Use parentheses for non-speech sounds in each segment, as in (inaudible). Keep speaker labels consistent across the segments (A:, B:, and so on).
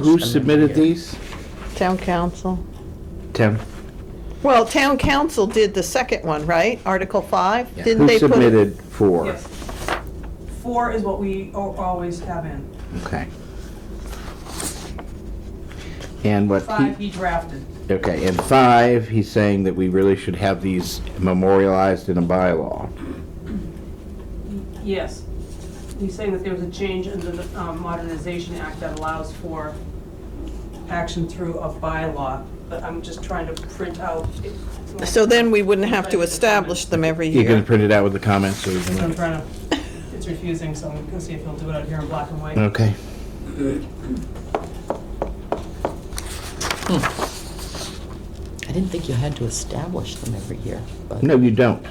A: Who submitted these?
B: Town council.
A: Tim.
B: Well, town council did the second one, right? Article 5?
C: Yeah.
B: Didn't
A: Who
B: they put?
A: submitted four?
D: Yes. Four is what we al- always have in.
A: Okay. And what
D: Five,
A: he,
D: he drafted.
A: okay, and five, he's saying that we really should have these memorialized in a bylaw.
D: Yes. He's saying that there was a change in the um, Modernization Act that allows for action through a bylaw, but I'm just trying to print out. it-
B: So then we wouldn't have to establish them every
A: You're gonna
B: year.
A: print it out with the comments, so we
D: It's in
A: can-
D: front of- it's refusing, so I'm gonna see if he'll do it out here in black and white.
A: okay.
C: I didn't think you had to establish them every year, but.
A: No, you don't.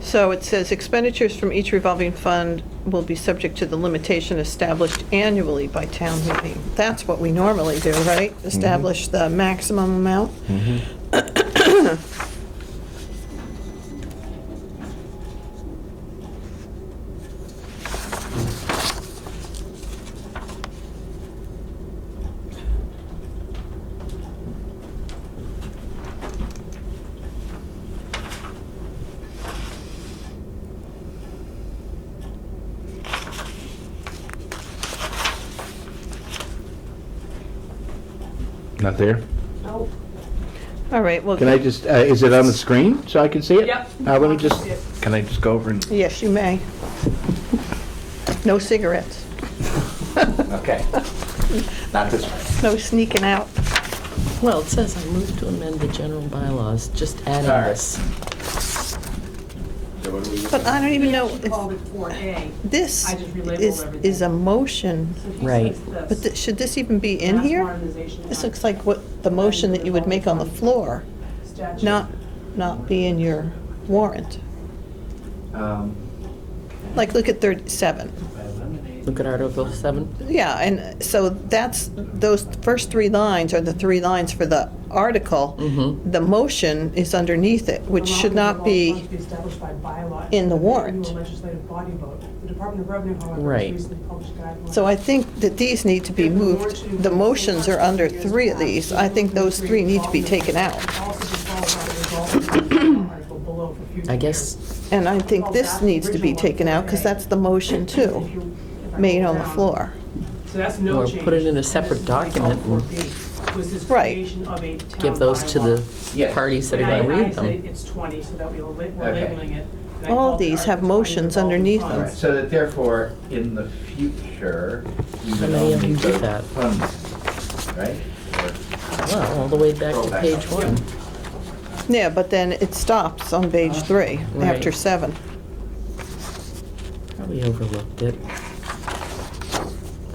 B: So it says expenditures from each revolving fund will be subject to the limitation established annually by town meeting. That's what we normally do, right?
A: Mm-hmm.
B: Establish the maximum amount?
A: Not there?
B: Oh,
D: Nope.
B: All right, well,
A: Can I just, uh, is it on the screen so I can see it?
D: Yep.
A: Uh, let me just,
D: Yep.
A: can I just go over and?
B: yes, you may. No cigarettes,
A: Okay. (laughs) Not this one.
B: no sneaking out.
C: Well, it says I move to amend the general bylaws, just adding this.
B: But I don't even know,
D: He called it four A.
B: if this
D: I just relabeled
B: is,
D: everything.
B: is a motion.
D: So he
C: Right.
D: says
B: But
D: this.
B: th- should this even be in
D: Mass
B: here?
D: Modernization
B: This
D: Act
B: looks like what, the motion that you would make on the floor,
D: statute.
B: not, not be in your warrant.
E: Um,
B: Like, look at 37.
E: if I eliminate-
C: Look at Article 7.
B: Yeah, and so that's, those first three lines are the three lines for the article.
C: Mhm.
B: The motion is underneath it, which should not be,
D: Amount of the law must established by bylaw
B: in the
D: and
B: warrant.
D: annual legislative body vote. The Department of Revenue, however,
C: Right.
D: has recently published guidelines.
B: so I think that these need to be moved. The motions are under three of these. I think those three need to be taken out.
D: Also just follow by the result of article below for future
C: I guess,
D: years.
B: And I think this needs to be taken out, because that's the motion
D: If
B: too,
D: you- if I
B: made
D: go
B: on the
D: down.
B: floor.
D: So that's no
C: Or
D: change.
C: put it in a
D: This is
C: separate
D: like
C: document and
D: 4B, was this
B: Right.
D: creation of a town
C: give those to
D: bylaw.
C: the
E: Yes.
C: parties that are
D: And I-
C: going to
D: I
C: read
D: say
C: them.
D: It's 20, so that we will lab- we're
E: Okay.
D: labeling it. And I
B: All
D: called it
B: these have
D: Article 20
B: motions
D: revolving
B: underneath
D: funds.
B: them.
E: Right, so that therefore, in the future, you
C: How
E: would
C: many of
E: only
C: them do
E: vote
C: that?
E: funds, right? Or-
C: Well, all the way back
E: Go
C: to
E: back
C: page
E: up.
C: one.
B: Yeah, but then it stops on page three, after
C: Right.
B: seven.
C: Probably overlooked it.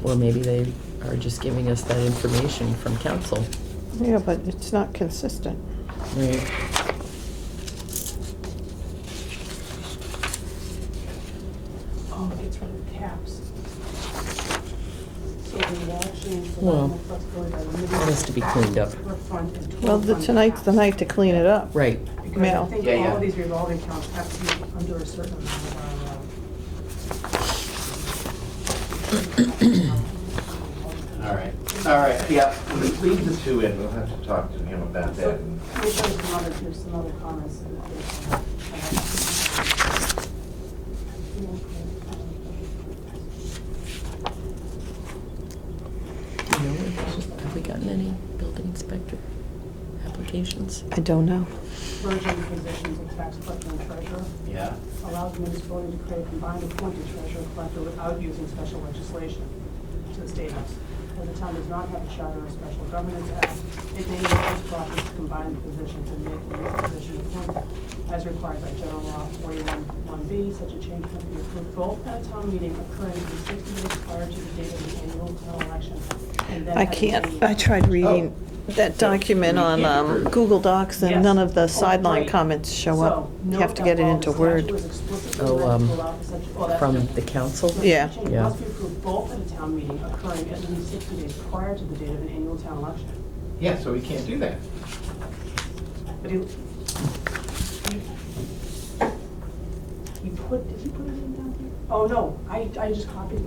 C: Or maybe they are just giving us that information from council.
B: Yeah, but it's not consistent.
C: Right.
D: Oh, it's from the caps. So the wall change for
C: Well,
D: lateral flexibility by limiting
C: That has to be cleaned up.
D: square front and
B: Well,
D: total
B: the-
D: front
B: tonight's the
D: caps.
B: night to clean it up.
C: Right.
D: Because
B: Yeah.
D: I think
E: Yeah,
D: all
E: yeah.
D: of these revolving accounts have to be under a certain amount of our, um. uh,
E: All right, all right, yeah, leave the two in, we'll have to talk to him about that.
D: So,
E: and-
D: there's some other, there's some other comments. and uh, others.
C: You know, Have we gotten any building inspector applications?
B: I don't know.
D: Merging uh, positions of tax collector and treasurer.
E: Yeah,
D: allows the municipality to create a combined appointed treasurer collector without using special legislation to the state house. As the town does not have a charter or special governance act, it may use its property to combine the positions and make the new position appointed as required by general law forty-one one B. Such a change can be approved both at a town meeting occurring in sixty days prior to the date of the annual town election. and then
B: I
D: at the
B: can't,
D: meeting.
B: I tried reading that document on um, Google Docs, and none of the
D: Yes.
B: sideline
D: Right.
B: comments show up.
D: So,
B: You
D: note
B: have to
D: that
B: get it
D: while
B: into
D: the
B: Word.
D: statute was explicitly
C: Oh,
D: written to
C: um,
D: allow for such- oh, that's
C: From
D: different.
C: the council?
B: Yeah.
D: Change
C: Yeah.
D: must be approved both at a town meeting occurring at least 60 days prior to the date of an annual town election.
E: yeah, so we can't do that.
D: But he, he put, did he put it in down here? Oh, no, I, I just copied